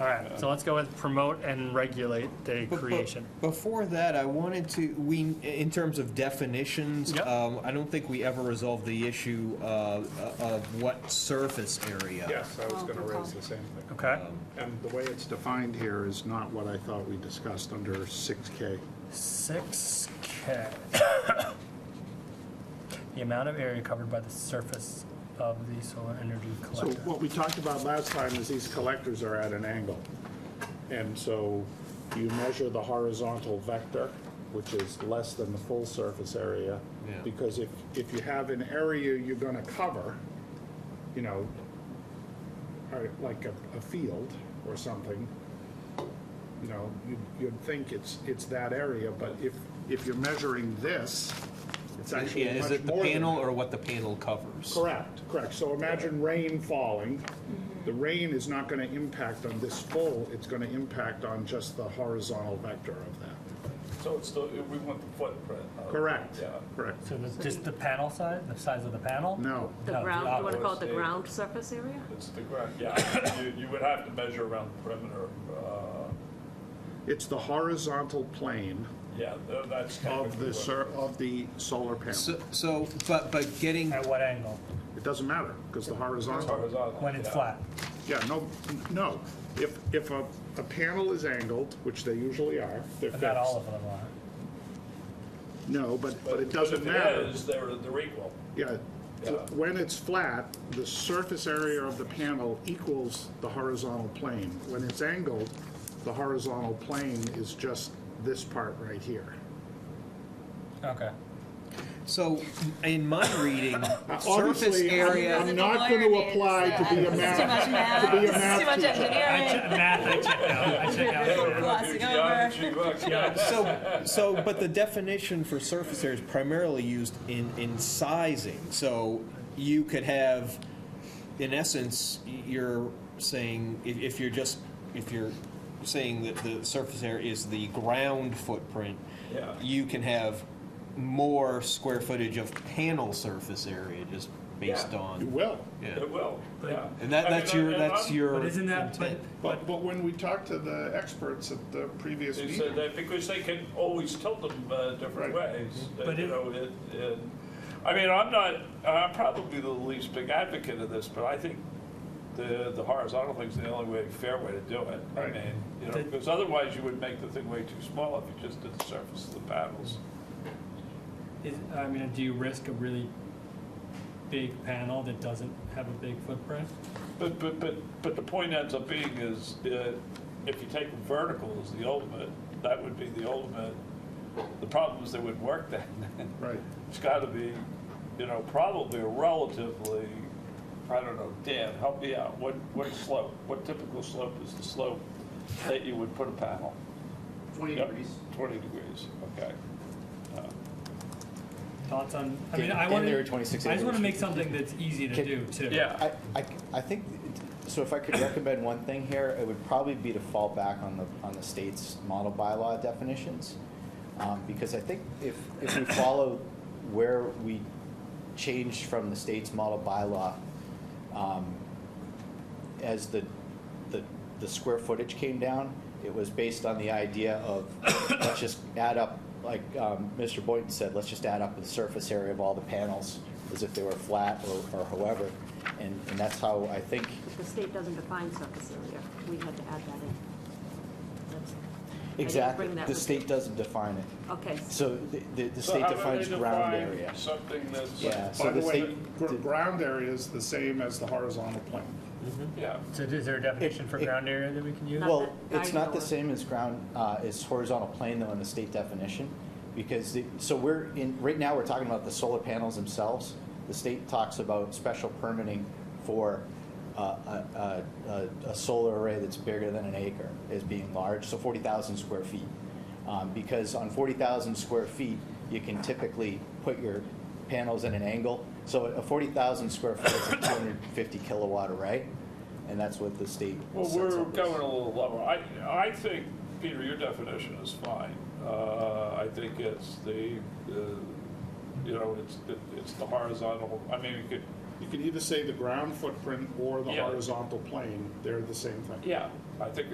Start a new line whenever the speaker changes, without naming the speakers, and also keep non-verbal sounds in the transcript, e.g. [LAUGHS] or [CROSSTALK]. All right, so let's go with promote and regulate the
But- but
creation.
Before that, I wanted to, we, in terms of definitions,
Yep.
um, I don't think we ever resolved the issue uh, of what surface area.
Yes, I was going to raise the same thing.
Okay,
And the way it's defined here is not what I thought we discussed under 6K.
six K. The amount of area covered by the surface of the solar energy
So
collector.
what we talked about last time is these collectors are at an angle. And so you measure the horizontal vector, which is less than the full surface area.
Yeah.
Because if, if you have an area you're going to cover, you know, or like a, a field or something, you know, you'd, you'd think it's, it's that area, but if, if you're measuring this, it's actually
Yeah,
much more
is it the
than
panel
that.
or what the panel covers?
Correct, correct. So imagine rain falling. The rain is not going to impact on this full, it's going to impact on just the horizontal vector of that.
So it's still, we want the footprint. of-
Correct,
Yeah.
correct.
So the- just the panel size, the size of the panel?
No,
No,
The
the
ground, you want to call it the
outdoor
ground surface area?
It's the ground, yeah. [COUGHS] You, you would have to measure around the perimeter. uh,
it's the horizontal plane
Yeah, tha- that's
of
technically
the,
what-
sur- of the solar panel.
So- So, but, but getting,
At what angle?
It doesn't matter, because the horizontal,
horizontal,
When it's
yeah.
flat?
yeah, no, no. If, if a, a panel is angled, which they usually are, they're
But not all
fixed.
of them are.
No, but, but it doesn't
If it
matter.
is, they're, they're equal.
Yeah,
Yeah.
when it's flat, the surface area of the panel equals the horizontal plane. When it's angled, the horizontal plane is just this part right here.
Okay.
so in my reading, surface
[LAUGHS] obviously,
area.
I'm not going to apply to be a math, to be a math teacher.
I che- Math, I checked out, I checked out.
Glossing
Geometry books,
[LAUGHS]
yeah.
So, so, but the definition for surface area is primarily used in, in sizing. So you could have, in essence, you're saying, if, if you're just, if you're saying that the surface area is the ground footprint,
Yeah.
you can have more square footage of panel surface area just based
Yeah.
You
on.
will.
Yeah.
It will, yeah.
And that,
I mean,
that's your,
I- I-
that's
I'm-
your
But isn't that, but,
intent.
But, but when we talked to the experts at the previous
They said
meeting,
that because uh, they can always tilt them uh, different
Right.
ways. uh,
But
you
it-
know, it- it- I mean, I'm not, I'm probably the least big advocate of this, but I think the, the horizontal thing's the only way, fair way to do it. I
Right.
mean, you know,
The-
because otherwise you would make the thing way too small if you just did the surface of the panels.
Is, I mean, do you risk a really big panel that doesn't have a big footprint?
But, but, but, but the point ends up being is, uh, if you take them vertical as the ultimate, that would be the ultimate. The problem is they wouldn't work then. [LAUGHS]
right,
It's got to be, you know, probably a relatively, I don't know, Dan, help me out. What, what slope, what typical slope is the slope that you would put a panel?
20
Yep,
degrees.
20 degrees, okay.
Thoughts on, I mean,
Dan-
I
Dan,
want
they
to,
were
I
26
just want to
acres.
make something that's easy to
Can-
do too.
I, I, I think, so if I could recommend one thing here, it would probably be to fall back on the, on the state's model bylaw definitions. Um, because I think if, if we follow where we changed from the state's model bylaw, um, as the, the, the square footage came down, it was based on the idea of, let's just add up, like, um, Mr. Boynton said, let's just add up the surface area of all the panels as if they were flat or, or however. And, and that's how I think,
The state doesn't define surface area. We had to add that in. That's- I didn't
exactly,
bring that
the
with
state
me.
doesn't define it.
Okay,
So the- the, the
So
state
how do they
defines ground
define
area.
Something that's,
Yeah,
by
so
the
the
way,
state.
gr- ground area is the same as the horizontal plane.
yeah.
so is there a definition for
It- it-
ground area that we can use?
Not
Well,
that
it's not
diagonal.
the same as ground, uh, as horizontal plane though in the state definition, because, the- so we're in, right now, we're talking about the solar panels themselves. The state talks about special permitting for uh, a, a- a, a solar array that's bigger than an acre as being large, so forty thousand square feet. Um, Because on forty thousand square feet, you can typically put your panels at an angle. So a forty thousand square foot is a two hundred and fifty kilowatt array, and that's what the state
Well,
sets
we're
up as.
going a little lower. I, I think, Peter, your definition is fine. Uh, I think it's the, uh, you know, it's, it's the horizontal, I mean, you could
You can either say the ground footprint or the
Yeah.
horizontal plane, they're the same thing.
Yeah, I think